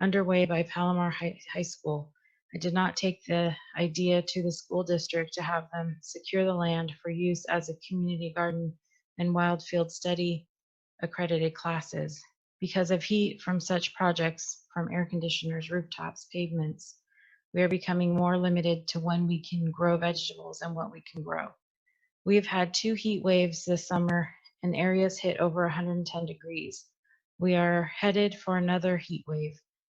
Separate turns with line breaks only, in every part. underway by Palomar High, High School. I did not take the idea to the school district to have them secure the land for use as a community garden and wild field study accredited classes because of heat from such projects from air conditioners, rooftops, pavements. We are becoming more limited to when we can grow vegetables and what we can grow. We have had two heat waves this summer and areas hit over 110 degrees. We are headed for another heat wave.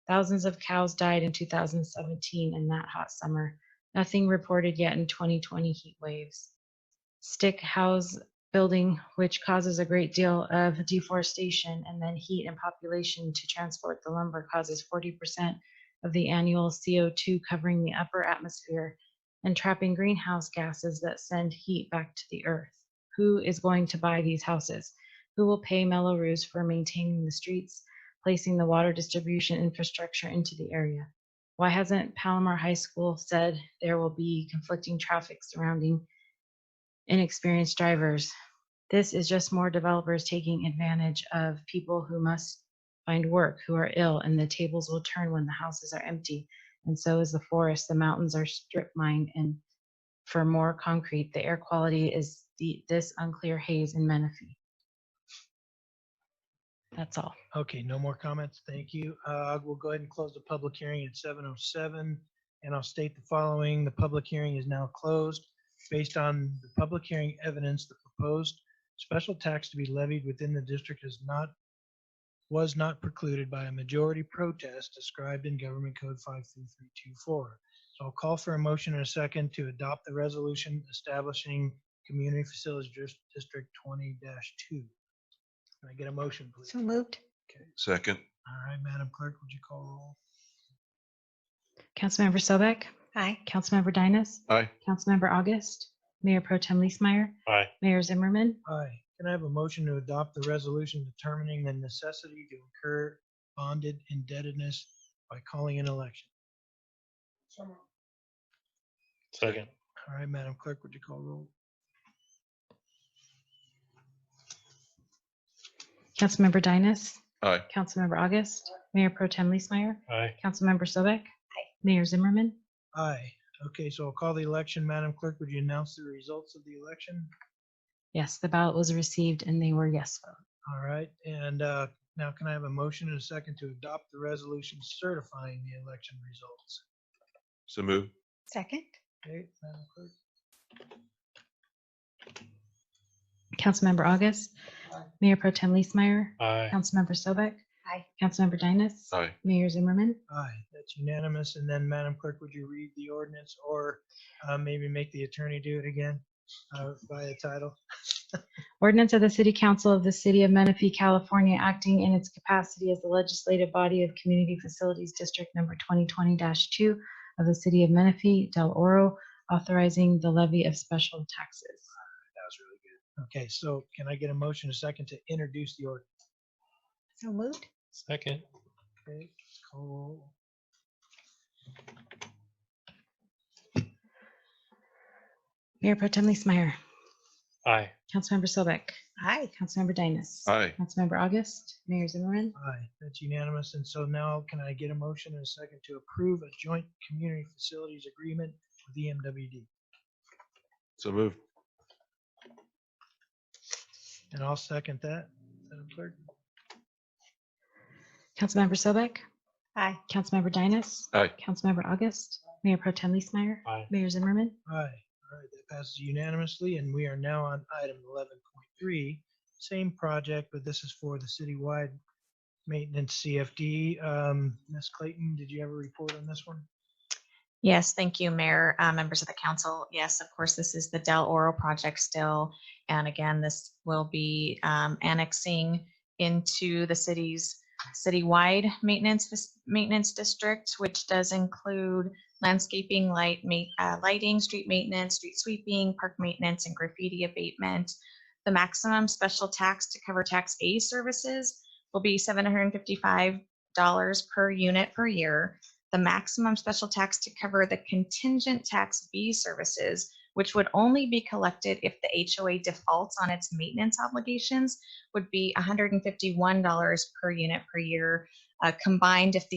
Thousands of cows died in 2017 in that hot summer. Nothing reported yet in 2020 heat waves. Stick house building, which causes a great deal of deforestation and then heat and population to transport the lumber, causes 40% of the annual CO2 covering the upper atmosphere and trapping greenhouse gases that send heat back to the earth. Who is going to buy these houses? Who will pay Melrose for maintaining the streets, placing the water distribution infrastructure into the area? Why hasn't Palomar High School said there will be conflicting traffic surrounding inexperienced drivers? This is just more developers taking advantage of people who must find work, who are ill, and the tables will turn when the houses are empty. And so is the forest. The mountains are strip mined, and for more concrete, the air quality is the, this unclear haze in Menifee. That's all.
Okay, no more comments. Thank you. Uh, We'll go ahead and close the public hearing at 7:07. And I'll state the following. The public hearing is now closed. Based on the public hearing evidence, the proposed special tax to be levied within the district is not, was not precluded by a majority protest described in Government Code 53324. So I'll call for a motion in a second to adopt the resolution establishing Community Facilities Dis- District 20-2. Can I get a motion, please?
So moved?
Second,
All right, Madam Clerk, would you call roll?
Councilmember Sobek,
Aye.
Councilmember Dynas,
aye.
Councilmember August, Mayor Pro Tem Leesmeyer,
Aye.
Mayor Zimmerman,
Aye. Can I have a motion to adopt the resolution determining the necessity to incur bonded indebtedness by calling an election?
Second.
All right, Madam Clerk, would you call roll?
Councilmember Dynas,
Aye.
Councilmember August, Mayor Pro Tem Leesmeyer,
Aye.
Councilmember Sobek, Mayor Zimmerman,
Aye. Okay, so I'll call the election. Madam Clerk, would you announce the results of the election?
Yes, the ballot was received and they were yes votes.
All right, and uh, now can I have a motion and a second to adopt the resolution certifying the election results?
So move.
Second?
Okay, Madam Clerk?
Councilmember August,
Aye.
Mayor Pro Tem Leesmeyer,
Aye.
Councilmember Sobek,
Aye.
Councilmember Dynas,
Aye.
Mayor Zimmerman,
Aye, that's unanimous. And then, Madam Clerk, would you read the ordinance or uh, maybe make the attorney do it again uh, via title?
Ordinance of the City Council of the City of Menifee, California, acting in its capacity as the legislative body of Community Facilities District Number 2020-2 of the City of Menifee, Del Oro, authorizing the levy of special taxes.
That was really good. Okay, so can I get a motion a second to introduce the ordinance?
So moved?
Second.
Okay, call roll.
Mayor Pro Tem Leesmeyer,
Aye.
Councilmember Sobek,
Aye.
Councilmember Dynas,
Aye.
Councilmember August, Mayor Zimmerman,
Aye, that's unanimous. And so now can I get a motion and a second to approve a joint community facilities agreement with E EMWD?
So move.
And I'll second that. Madam Clerk?
Councilmember Sobek,
Aye.
Councilmember Dynas.
Aye.
Councilmember August. Mayor Pro Tem Leesmeyer.
Aye.
Mayor Zimmerman.
Aye. All right, that passes unanimously, and we are now on item eleven point three. Same project, but this is for the citywide maintenance CFD. Um, Ms. Clayton, did you have a report on this one?
Yes, thank you, Mayor, uh, members of the council. Yes, of course, this is the Del Oro project still. And again, this will be um, annexing into the city's citywide maintenance, dis- maintenance district, which does include landscaping, light, ma- uh, lighting, street maintenance, street sweeping, park maintenance, and graffiti abatement. The maximum special tax to cover tax A services will be $755 per unit per year the maximum special tax to cover the contingent tax B services, which would only be collected if the HOA defaults on its maintenance obligations, would be $151 per unit per year, uh, combined if the